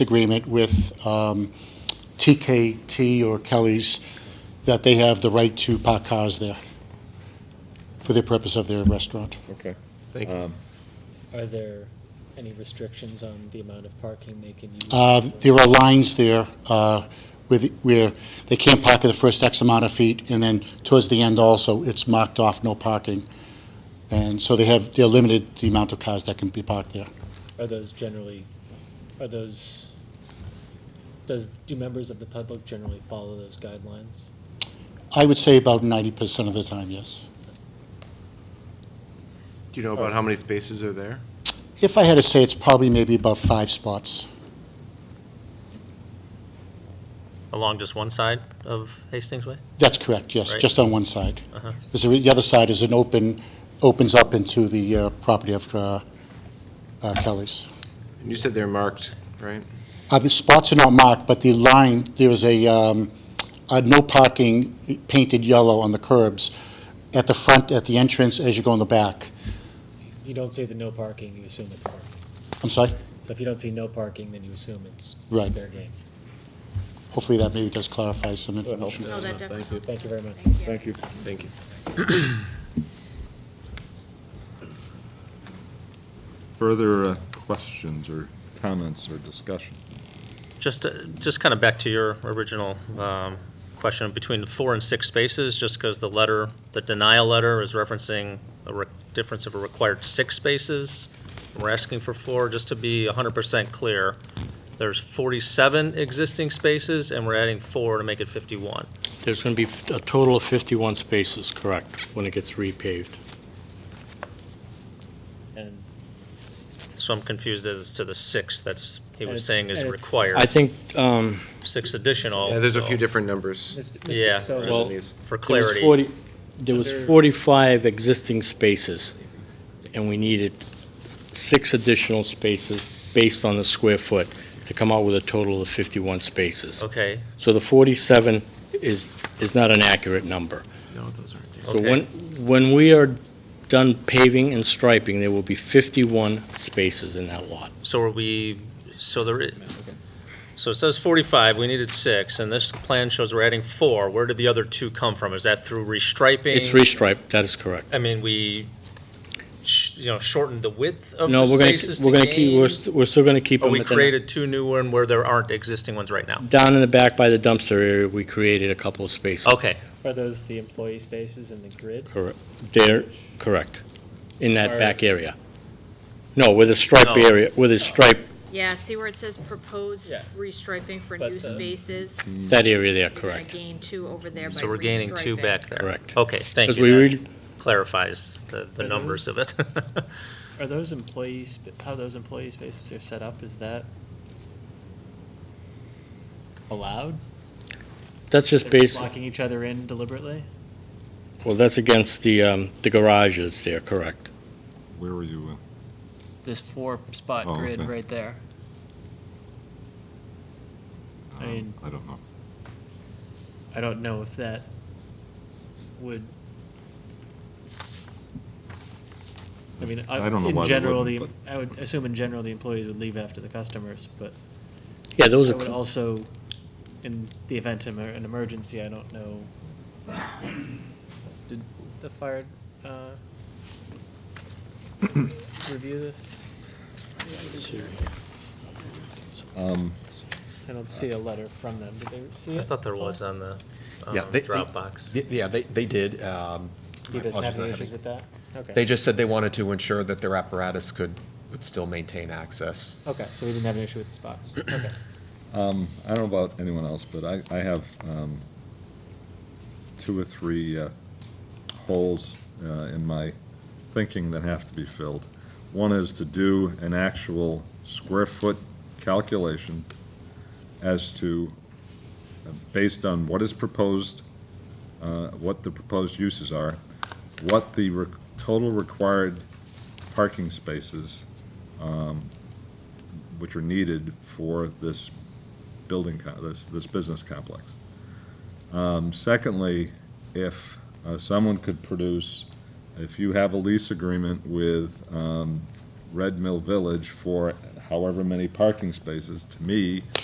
agreement with um, TKT or Kelly's, that they have the right to park cars there for the purpose of their restaurant. Okay. Thank you. Are there any restrictions on the amount of parking they can use? Uh, There are lines there uh, with- where they can't park at the first X amount of feet, and then towards the end also, it's marked off, no parking. And so they have, they're limited the amount of cars that can be parked there. Are those generally, are those, does, do members of the public generally follow those guidelines? I would say about 90% of the time, yes. Do you know about how many spaces are there? If I had to say, it's probably maybe about five spots. Along just one side of Hastings Way? That's correct, yes, Right. just on one side. Uh-huh. There's a- The other side is an open, opens up into the uh, property of uh, uh, Kelly's. And You said they're marked, right? Uh, The spots are not marked, but the line, there is a, um, a no parking eh, painted yellow on the curbs at the front, at the entrance, as you go in the back. You don't say the no parking, you assume it's parking. I'm sorry? So if you don't see no parking, then you assume it's Right. fair game. Hopefully that maybe does clarify some information. No, that definitely helps. Thank you very much. Thank you. Thank you. Further uh, questions or comments or discussion? Just, uh, just kind of back to your original um, question, between four and six spaces, just because the letter, the denial letter is referencing a re- difference of a required six spaces. We're asking for four, just to be 100% clear. There's 47 existing spaces, and we're adding four to make it 51. There's going to be f- a total of 51 spaces, correct, when it gets repaved. And So I'm confused as to the six that's, he And was it's- saying is and it's- I required, think, um, six additional. Yeah, there's a few so- different numbers. Mr. Yeah, Mr. So- well, for there was clarity. 40, there was Other- 45 existing spaces, and we needed six additional spaces based on the square foot to come out with a total of 51 spaces. Okay, So the 47 is, is not an accurate number. No, those aren't there. So Okay. when, when we are done paving and striping, there will be 51 spaces in that lot. so are we, so there, i- so it says 45, we needed six, and this plan shows we're adding four. Where did the other two come from? Is that through restriping? It's restriped, that is correct. I mean, we, sh- you know, shortened the width of No, the we're gonna, spaces to we're gonna keep, we're, gain? st- we're still gonna keep Or them. we within- created two new ones where there aren't existing ones right now? Down in the back by the dumpster area, we created a couple of spaces. Okay, Are those the employee spaces in the grid? Correct. There, correct, in Or- that back area. No, with a stripe No. area, with a stripe, Yeah, see where it says proposed Yeah. restriping for But uh, new the- spaces? that area there, You're gonna correct, Gain two over there by so we're gaining two restriping. back there. Correct. Okay, thank because we you. That really, clarifies the, the Are numbers of it. Are those employees, how those employee spaces are set up, is that allowed? that's just based, Locking each other in deliberately? well, that's against the, um, the garages there, correct. Where were you? This four-spot Oh, grid okay. right there. uh, I mean- I don't know. I don't know if that would. I mean, I, I don't know why in they general, the, wouldn't, I would assume in general, the employees would leave after the customers, but Yeah, I those are, would cl- also, in the event of an emergency, I don't know. Did the fire, uh, review this? Um, I don't see a letter from them. Did they see it? I thought there was on the um, Yeah, they- they- Dropbox. Y- Yeah, they, they did. um, He my doesn't apologies, have any I issues haven't- with that? Okay. They just said they wanted to ensure that their apparatus could, would still maintain access. Okay, so we didn't have an issue with the spots. Okay. um, I don't know about anyone else, but I, I have um, two or three uh, holes uh, in my thinking that have to be filled. One is to do an actual square foot calculation as to, uh, based on what is proposed, uh, what the proposed uses are, what the re- total required parking spaces, um, which are needed for this building, co- this, this business complex. Um, Secondly, if uh, someone could produce, if you have a lease agreement with um, Red Mill Village for however many parking spaces, to me,